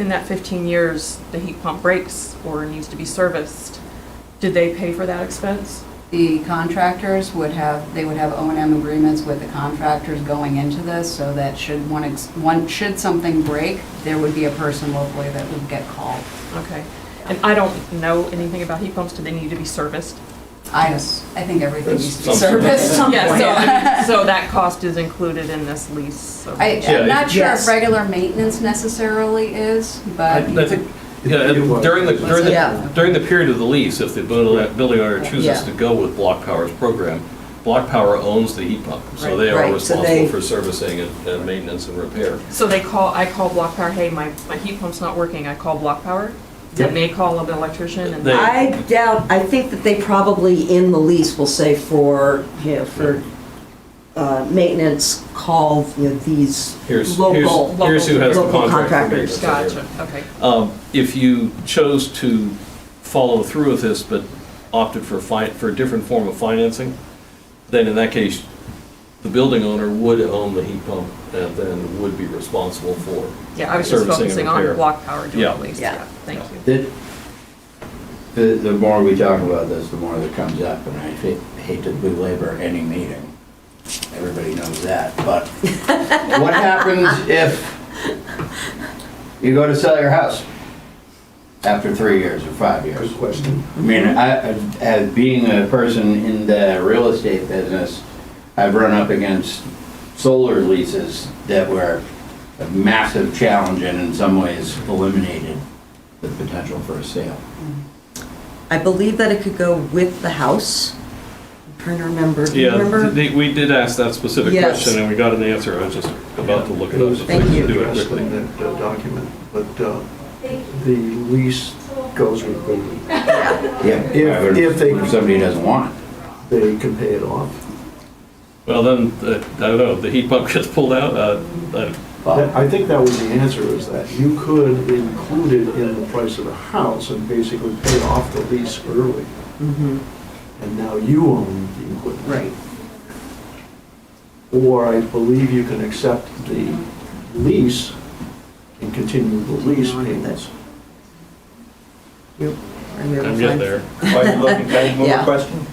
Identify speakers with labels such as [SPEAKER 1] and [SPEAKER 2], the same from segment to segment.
[SPEAKER 1] in that 15 years, the heat pump breaks or needs to be serviced, did they pay for that expense?
[SPEAKER 2] The contractors would have, they would have O and M agreements with the contractors going into this, so that should one, ex- one, should something break, there would be a person locally that would get called.
[SPEAKER 1] Okay. And I don't know anything about heat pumps. Do they need to be serviced?
[SPEAKER 2] I, I think everything
[SPEAKER 3] That's
[SPEAKER 2] needs to be
[SPEAKER 3] something.
[SPEAKER 2] serviced.
[SPEAKER 1] Yeah, so, I mean, so that cost is included in this lease. so-
[SPEAKER 2] I,
[SPEAKER 3] Yeah,
[SPEAKER 2] I'm not
[SPEAKER 3] it-
[SPEAKER 2] sure if
[SPEAKER 4] Yes.
[SPEAKER 2] regular maintenance necessarily is,
[SPEAKER 3] I
[SPEAKER 2] but
[SPEAKER 3] I think, yeah, during the, during
[SPEAKER 4] Yeah.
[SPEAKER 3] the, during the period of the lease, if the buil- building owner chooses
[SPEAKER 4] Yeah.
[SPEAKER 3] to go with Block Power's program, Block Power owns the heat pump, so they
[SPEAKER 4] Right,
[SPEAKER 3] are
[SPEAKER 4] right, so they-
[SPEAKER 3] responsible for servicing and and maintenance and repair.
[SPEAKER 1] So they call, I call Block Power, hey, my, my heat pump's not working. I call Block Power. Then they call an electrician and.
[SPEAKER 3] They-
[SPEAKER 4] I doubt, I think that they probably in the lease will say for, you know, for uh, maintenance, call, you know, these
[SPEAKER 3] Here's, here's,
[SPEAKER 4] local.
[SPEAKER 3] here's who has the
[SPEAKER 4] local
[SPEAKER 3] contract. for
[SPEAKER 4] contractors.
[SPEAKER 3] maintenance.
[SPEAKER 1] Gotcha, okay.
[SPEAKER 3] Um, If you chose to follow through with this, but opted for fi, for a different form of financing, then in that case, the building owner would own the heat pump and then would be responsible for.
[SPEAKER 1] Yeah, I was just
[SPEAKER 3] servicing and
[SPEAKER 1] focusing on
[SPEAKER 3] repair.
[SPEAKER 1] Block Power doing
[SPEAKER 3] Yeah.
[SPEAKER 1] the lease.
[SPEAKER 4] Yeah.
[SPEAKER 1] Yeah, thank you.
[SPEAKER 5] The, the, the more we talk about this, the more that comes up, and I hate, hate to belabor any meeting. Everybody knows that, but what happens if you go to sell your house after three years or five years? Good question. I mean, I, I- as being a person in the real estate business, I've run up against solar leases that were a massive challenge and in some ways eliminated the potential for a sale.
[SPEAKER 4] I believe that it could go with the house. I'm trying to remember. Do you
[SPEAKER 3] Yeah,
[SPEAKER 4] remember?
[SPEAKER 3] they- we did ask that specific
[SPEAKER 4] Yes.
[SPEAKER 3] question, and we got an answer, I was just about to look it up.
[SPEAKER 4] Thank
[SPEAKER 3] We can
[SPEAKER 4] you.
[SPEAKER 3] Do it
[SPEAKER 6] Addressed
[SPEAKER 3] quickly.
[SPEAKER 6] in that uh, document, but uh, the lease goes with building.
[SPEAKER 5] Yeah.
[SPEAKER 6] If- if they-
[SPEAKER 5] If somebody doesn't want it.
[SPEAKER 6] They can pay it off.
[SPEAKER 3] Well, then, uh, I don't know, the heat pump gets pulled out, uh, uh,
[SPEAKER 6] That- I think that was the answer, is that you could include it in the price of the house and basically pay off the lease early,
[SPEAKER 4] Mhm,
[SPEAKER 6] and now you own the equipment.
[SPEAKER 4] Right.
[SPEAKER 6] Or I believe you can accept the lease and continue the lease
[SPEAKER 4] No, I think
[SPEAKER 6] payments.
[SPEAKER 4] Yep. I'm able to
[SPEAKER 3] I'm getting
[SPEAKER 4] find-
[SPEAKER 3] there.
[SPEAKER 7] While you're looking, can I have one
[SPEAKER 4] Yeah.
[SPEAKER 7] more question?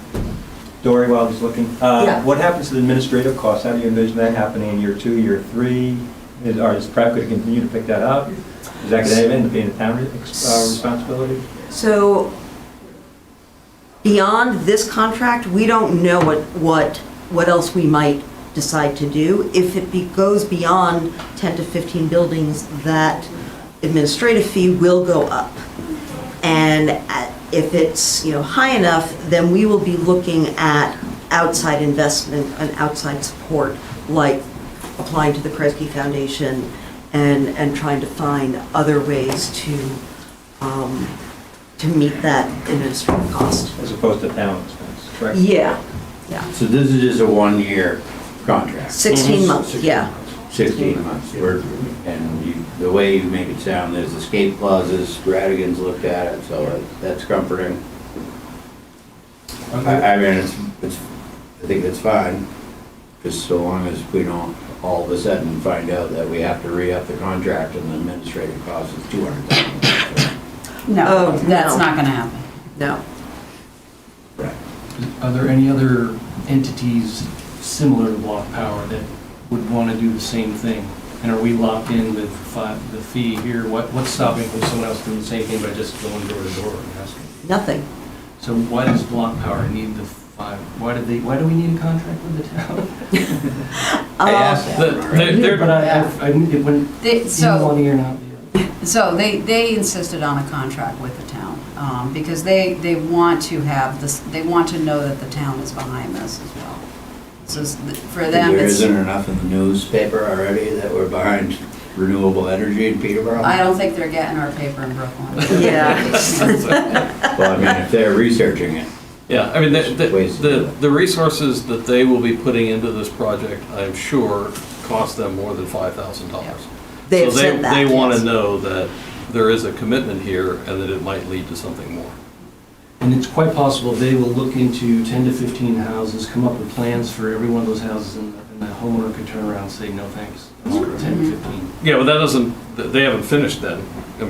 [SPEAKER 7] Dory, while he's looking. Uh,
[SPEAKER 4] Yeah.
[SPEAKER 7] What happens to the administrative costs? How do you envision that happening in year two, year three? Is, or is Pratt going to continue to pick that up? Is that going to end up being a town re- ex- uh, responsibility?
[SPEAKER 4] So beyond this contract, we don't know what, what, what else we might decide to do. If it be- goes beyond 10 to 15 buildings, that administrative fee will go up. And at- if it's, you know, high enough, then we will be looking at outside investment and outside support, like applying to the Kresge Foundation and, and trying to find other ways to, um, to meet that administrative cost.
[SPEAKER 7] As opposed to town expense, correct?
[SPEAKER 4] Yeah, yeah.
[SPEAKER 5] So this is just a one-year contract,
[SPEAKER 6] Mhm.
[SPEAKER 4] 16 months, yeah.
[SPEAKER 5] 16 months. We're- And you, the way you make it sound, there's escape clauses, Radigan's looked at it, so uh, that's comforting. I, I mean, it's, it's, I think it's fine, just so long as we don't all of a sudden find out that we have to re-up the contract and the administrative cost is 200,000.
[SPEAKER 4] Oh,
[SPEAKER 2] no,
[SPEAKER 4] no.
[SPEAKER 2] that's not gonna happen.
[SPEAKER 4] No.
[SPEAKER 5] Right.
[SPEAKER 8] Are there any other entities similar to Block Power that would want to do the same thing? And are we locked in with fi- the fee here? What What's stopping from someone else doing the same thing by just going door to door and asking?
[SPEAKER 4] Nothing.
[SPEAKER 8] So why does Block Power need the five, why do they, why do we need a contract with the town?
[SPEAKER 5] I asked
[SPEAKER 4] Um,
[SPEAKER 5] that.
[SPEAKER 3] The- they- they're-
[SPEAKER 8] But I, I, I- it wouldn't,
[SPEAKER 2] They-
[SPEAKER 8] either
[SPEAKER 2] so-
[SPEAKER 8] one ear and out the other.
[SPEAKER 2] So they, they insisted on a contract with the town, um, because they, they want to have this, they want to know that the town is behind this as well. So it's- for them,
[SPEAKER 5] There
[SPEAKER 2] it's,
[SPEAKER 5] isn't enough in the newspaper already that we're behind renewable energy in Peterborough?
[SPEAKER 2] I don't think they're getting our paper in Brooklyn.
[SPEAKER 4] Yeah.
[SPEAKER 5] Well, I mean, if they're researching it,
[SPEAKER 3] Yeah, I mean, the, the-
[SPEAKER 5] Ways to do
[SPEAKER 3] the,
[SPEAKER 5] it.
[SPEAKER 3] the resources that they will be putting into this project, I'm sure, cost them more than five thousand dollars.
[SPEAKER 4] They have said that,
[SPEAKER 3] They want
[SPEAKER 4] yes.
[SPEAKER 3] to know that there is a commitment here and that it might lead to something more.
[SPEAKER 8] And it's quite possible they will look into 10 to 15 houses, come up with plans for every one of those houses, and and the homeowner could turn around and say, no, thanks. I want 10 to 15.
[SPEAKER 3] Yeah, but that doesn't, th- they haven't finished then.